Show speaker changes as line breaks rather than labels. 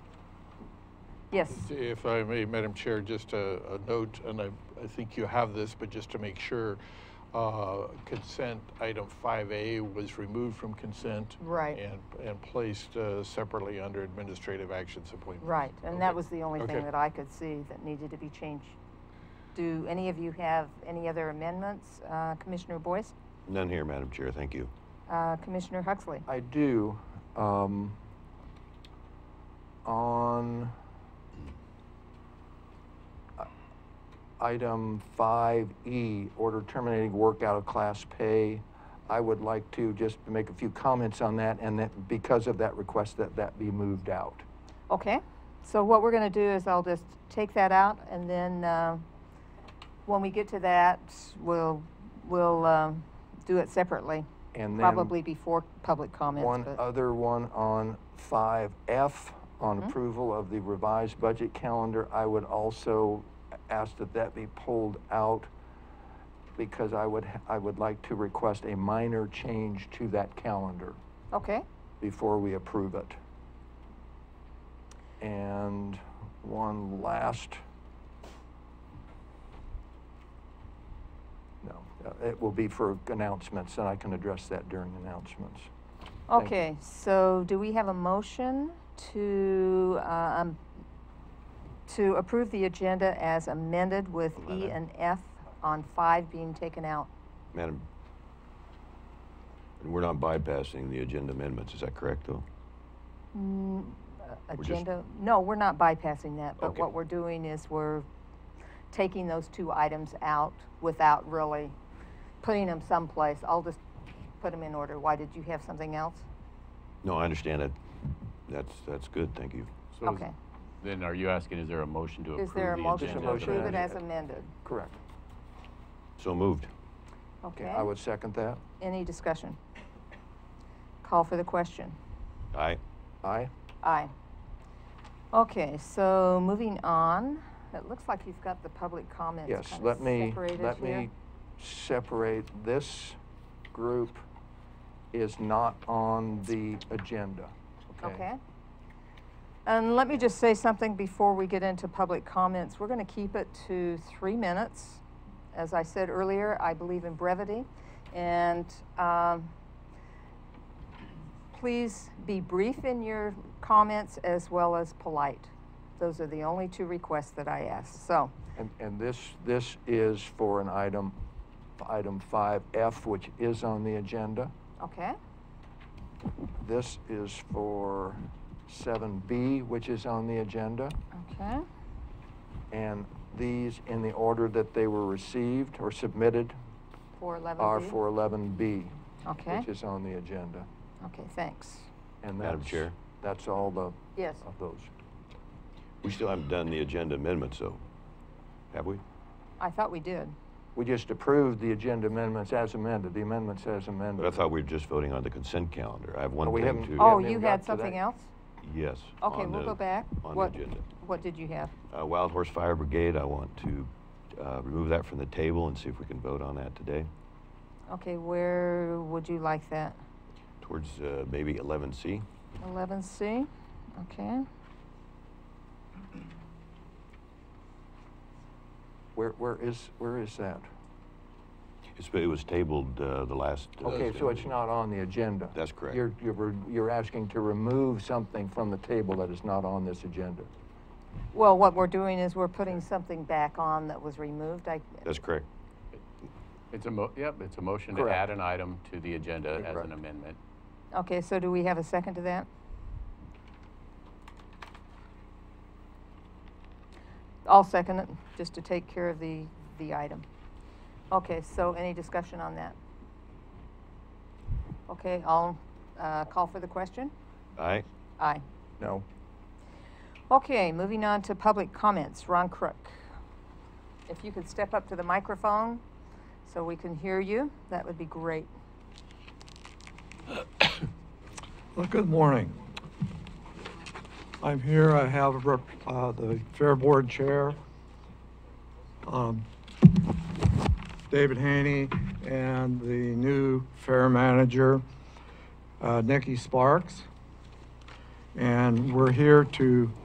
Yes.
If I may, Madam Chair, just a, a note, and I, I think you have this, but just to make sure, uh, consent item five A was removed from consent.
Right.
And, and placed, uh, separately under administrative actions appointments.
Right, and that
Okay.
was the only
Okay.
thing that I could see that needed to be changed. Do any of you have any other amendments? Uh, Commissioner Boyce?
None here, Madam Chair, thank you.
Uh, Commissioner Huxley?
I do. Um, on i- item 5E, order terminating work out of class pay, I would like to just make a few comments on that and that because of that request that that be moved out.
Okay, so what we're gonna do is I'll just take that out, and then, uh, when we get to that, we'll, we'll, um, do it separately,
And then
probably before public comments,
One
but,
other one on 5F,
Mm-hmm.
on approval of the revised budget calendar. I would also ask that that be pulled out because I would, I would like to request a minor change to that calendar
okay,
before we approve it. And one last. No, uh, it will be for announcements, and I can address that during announcements. Thank you.
okay, so do we have a motion to, uh, um, to approve the agenda as amended with E and F on five being taken out?
Madam, and we're not bypassing the agenda amendments, is that correct, though?
Mm, uh,
just-
Agenda, no, we're not bypassing that, but
Okay.
what we're doing is we're taking those two items out without really putting them someplace. I'll just put them in order. Why, did you have something else?
No, I understand that. That's, that's good, thank you.
So is-
Okay.
Then are you asking, is there a motion to approve
Is there a
the
motion to
agenda as
motion.
approve it
amended?
as amended?
Correct.
So moved.
Okay,
Okay,
I would second that.
any discussion? Call for the question.
Aye.
Aye.
Aye. Okay, so moving on, it looks like you've got the public comments
Yes,
kinda
let me,
separated
let
here.
me separate. This group is not on the agenda.
Okay. And let me just say something before we get into public comments. We're going to keep it to three minutes. As I said earlier, I believe in brevity. And um, please be brief in your comments as well as polite. Those are the only two requests that I ask. So,
And, and this, this is for an item, item 5F, which is on the agenda.
okay,
This is for 7B, which is on the agenda.
okay,
And these, in the order that they were received or submitted,
four eleven.
are for 11B,
Okay,
which is on the agenda.
okay, thanks.
And
Madam
that's-
Chair.
That's all the,
Yes.
of those.
We still haven't done the agenda amendments, though. Have we?
I thought we did.
We just approved the agenda amendments as amended, the amendments as amended.
But I thought we were just voting on the consent calendar. I have one
No, we
thing
haven't-
to.
We
Oh,
haven't
you
even
had
got to that.
something else?
Yes.
Okay,
on
we'll
the-
go back.
On the
What-
agenda.
What did you have?
Uh, Wild Horse Fire Brigade, I want to uh, remove that from the table and see if we can vote on that today.
Okay, where would you like that?
Towards uh, maybe 11C.
Eleven C, okay.
Where, where is, where is that?
It's, it was tabled uh, the last. uh,
Okay, so it's
meeting.
not on the agenda.
That's correct.
You're, you're, re- you're asking to remove something from the table that is not on this agenda.
Well, what we're doing is we're putting something back on that was removed. I,
That's correct.
It's a mo, yep, it's a motion to
Correct.
add an item to the agenda as
Correct.
an amendment.
okay, so do we have a second to that? I'll second it, just to take care of the, the item. Okay, so any discussion on that? Okay, I'll, uh, call for the question?
Aye.
Aye.
No?
Okay, moving on to public comments. Ron Crook. If you could step up to the microphone so we can hear you, that would be great.
Well, good morning. I'm here, I have rep- uh, the Fair Board Chair, um, David Haney, and the new Fair Manager, uh, Nikki Sparks. And we're here to